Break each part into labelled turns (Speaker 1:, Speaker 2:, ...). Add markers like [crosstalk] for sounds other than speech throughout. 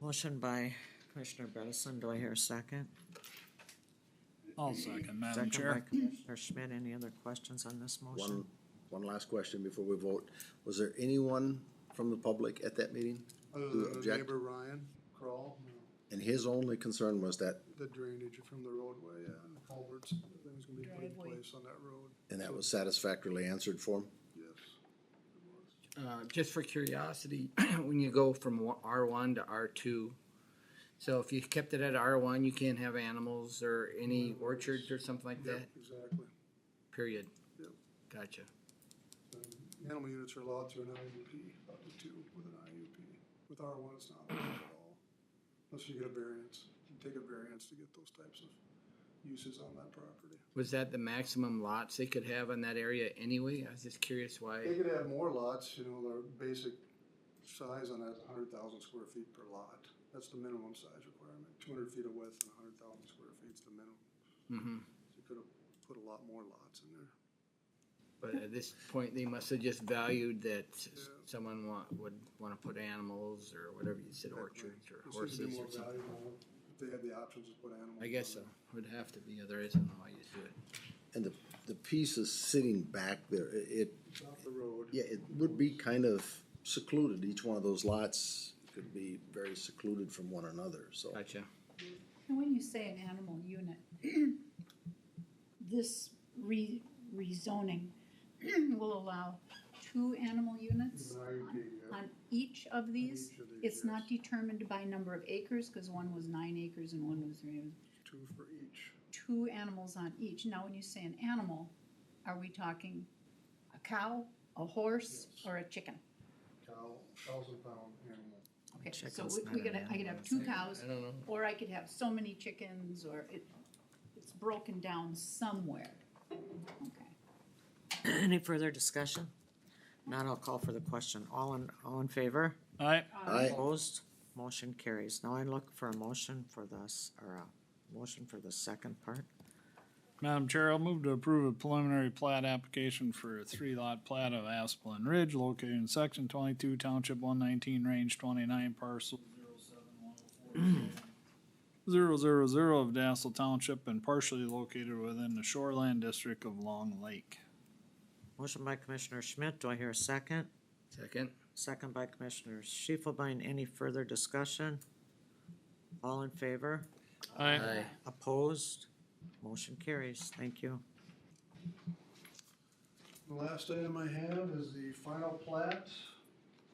Speaker 1: Motion by Commissioner Bredesen, do I hear a second?
Speaker 2: I'll second, Madam
Speaker 1: Second by
Speaker 2: Chair.
Speaker 1: Commissioner Schmidt, any other questions on this motion?
Speaker 3: One, one last question before we vote. Was there anyone from the public at that meeting?
Speaker 4: Other
Speaker 3: Who
Speaker 4: than Uh, Oh, the
Speaker 3: object-
Speaker 4: neighbor Ryan Crawl,
Speaker 3: And his only concern was that,
Speaker 4: the drainage from the roadway, uh, culverts, things gonna be put in place on that road,
Speaker 3: and that was satisfactorily answered for him?
Speaker 4: yes.
Speaker 5: Uh, just for curiosity, [clears throat] when you go from R one to R two, so if you kept it at R one, you can't have animals or any orchards or something like that,
Speaker 4: Yep, exactly.
Speaker 5: period.
Speaker 4: Yep.
Speaker 5: Gotcha.
Speaker 4: And Animal units are allowed through an IUP, up to two with an IUP. With R one, it's not allowed at all, unless you get a variance, you take a variance to get those types of uses on that property.
Speaker 5: Was that the maximum lots they could have in that area anyway? I was just curious
Speaker 4: They
Speaker 5: why,
Speaker 4: could have more lots, you know, their basic size on that is hundred thousand square feet per lot. That's the minimum size requirement, two hundred feet of width and hundred thousand square feet is the minimum.
Speaker 5: hmm
Speaker 4: So you could have put a lot more lots in there.
Speaker 5: but at this point, they must have just valued that s-
Speaker 4: Yeah.
Speaker 5: someone wa- would wanna put animals or whatever you said, orchards or horses or something.
Speaker 4: If they had the options to put animals.
Speaker 5: I guess so,
Speaker 4: on there.
Speaker 5: would have to be, otherwise I don't know why you do it.
Speaker 3: And the, the piece is sitting back there. I- It,
Speaker 4: Off the road.
Speaker 3: yeah, it would be kind of secluded. Each one of those lots could be very secluded from one another, so.
Speaker 5: Gotcha.
Speaker 6: And when you say an animal unit, [clears throat] this re- rezoning [clears throat] will allow two animal units
Speaker 4: An IUP, yeah.
Speaker 6: on each of these?
Speaker 4: Each of these,
Speaker 6: It's not
Speaker 4: yes.
Speaker 6: determined by number of acres, because one was nine acres and one was three.
Speaker 4: Two for each.
Speaker 6: Two animals on each. Now, when you say an animal, are we talking a cow, a horse,
Speaker 4: Yes.
Speaker 6: or a chicken?
Speaker 4: Cow, thousand pound animal.
Speaker 6: Okay, so
Speaker 1: Chicken's
Speaker 6: we-
Speaker 1: not
Speaker 6: we're
Speaker 1: an
Speaker 6: gonna, I could
Speaker 1: animal,
Speaker 6: have
Speaker 1: is
Speaker 6: two
Speaker 1: it?
Speaker 6: cows,
Speaker 5: I don't know.
Speaker 6: or I could have so many chickens, or it, it's broken down somewhere. Okay.
Speaker 1: [clears throat] Any further discussion? Not, I'll call for the question. All in, all in favor?
Speaker 2: Aye,
Speaker 3: I,
Speaker 1: Opposed? Motion carries. Now I look for a motion for this, or a motion for the second part.
Speaker 2: Madam Chair, I'll move to approve a preliminary plat application for a three-lot plat of Asplin Ridge located in section twenty-two, township one nineteen, range twenty-nine, parcel zero zero zero of Dassel Township and partially located within the shoreland district of Long Lake.
Speaker 1: Motion by Commissioner Schmidt, do I hear a second?
Speaker 5: Second?
Speaker 1: Second by Commissioner Shifelbein. Any further discussion? All in favor?
Speaker 5: Aye.
Speaker 1: Opposed? Motion carries. Thank you.
Speaker 4: The last item I have is the final plat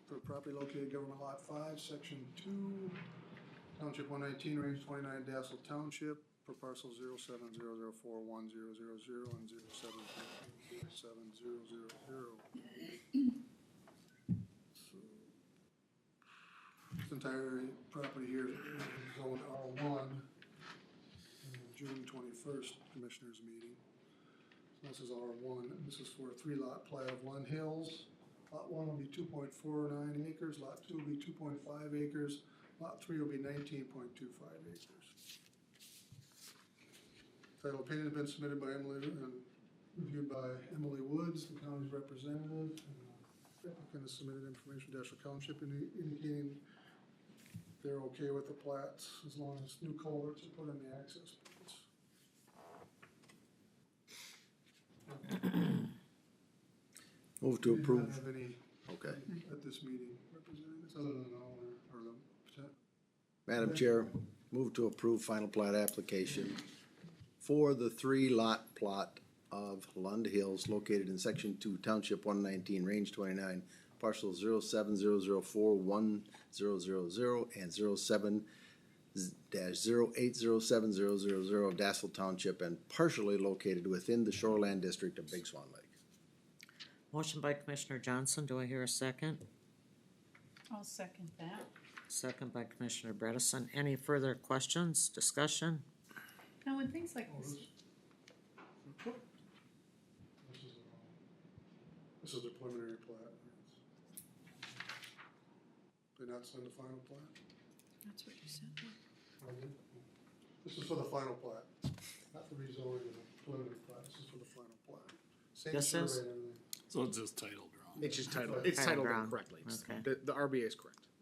Speaker 4: for property located government lot five, section two, township one nineteen, range twenty-nine, Dassel Township, for parcel zero seven zero zero four one zero zero zero and zero seven seven zero zero zero. This entire property here is zoned R one, June twenty-first, commissioners meeting. This is R one, this is for a three lot plat of One Hills. Lot one will be two point four nine acres, lot two will be two point five acres, lot three will be nineteen point two five acres. Title opinion has been submitted by Emily and reviewed by Emily Woods, the county's representative. Applicant has submitted information to Dasher Township indi- indicating they're okay with the plats as long as new culverts are put in the access points.
Speaker 3: move to
Speaker 4: We do not
Speaker 3: approve.
Speaker 4: Have any
Speaker 3: Okay.
Speaker 4: at this meeting, representatives, other than all, or the, potent-
Speaker 3: Madam Chair, move to approve final plat application for the three lot plot of Lund Hills located in section two, township one nineteen, range twenty-nine, parcel zero seven zero zero four one zero zero zero and zero seven dash zero eight zero seven zero zero zero of Dassel Township and partially located within the shoreland district of Big Swan Lake.
Speaker 1: Motion by Commissioner Johnson, do I hear a second?
Speaker 6: I'll second that.
Speaker 1: Second by Commissioner Bredesen. Any further questions, discussion?
Speaker 6: Now, when things like this,
Speaker 4: this is, the wrong- this is the preliminary plat. Did not send the final plat?
Speaker 6: that's what you said.
Speaker 4: I did. This is for the final plat, not the rezoning of the preliminary plat, this is for the final plat. Same
Speaker 1: This
Speaker 4: survey
Speaker 1: is-
Speaker 4: and everything.
Speaker 2: So it's just title drawn.
Speaker 5: It's just titled,
Speaker 4: Titled
Speaker 5: it's titled
Speaker 1: wrong.
Speaker 5: incorrectly. It's-
Speaker 1: Okay.
Speaker 5: The, the RBA is correct.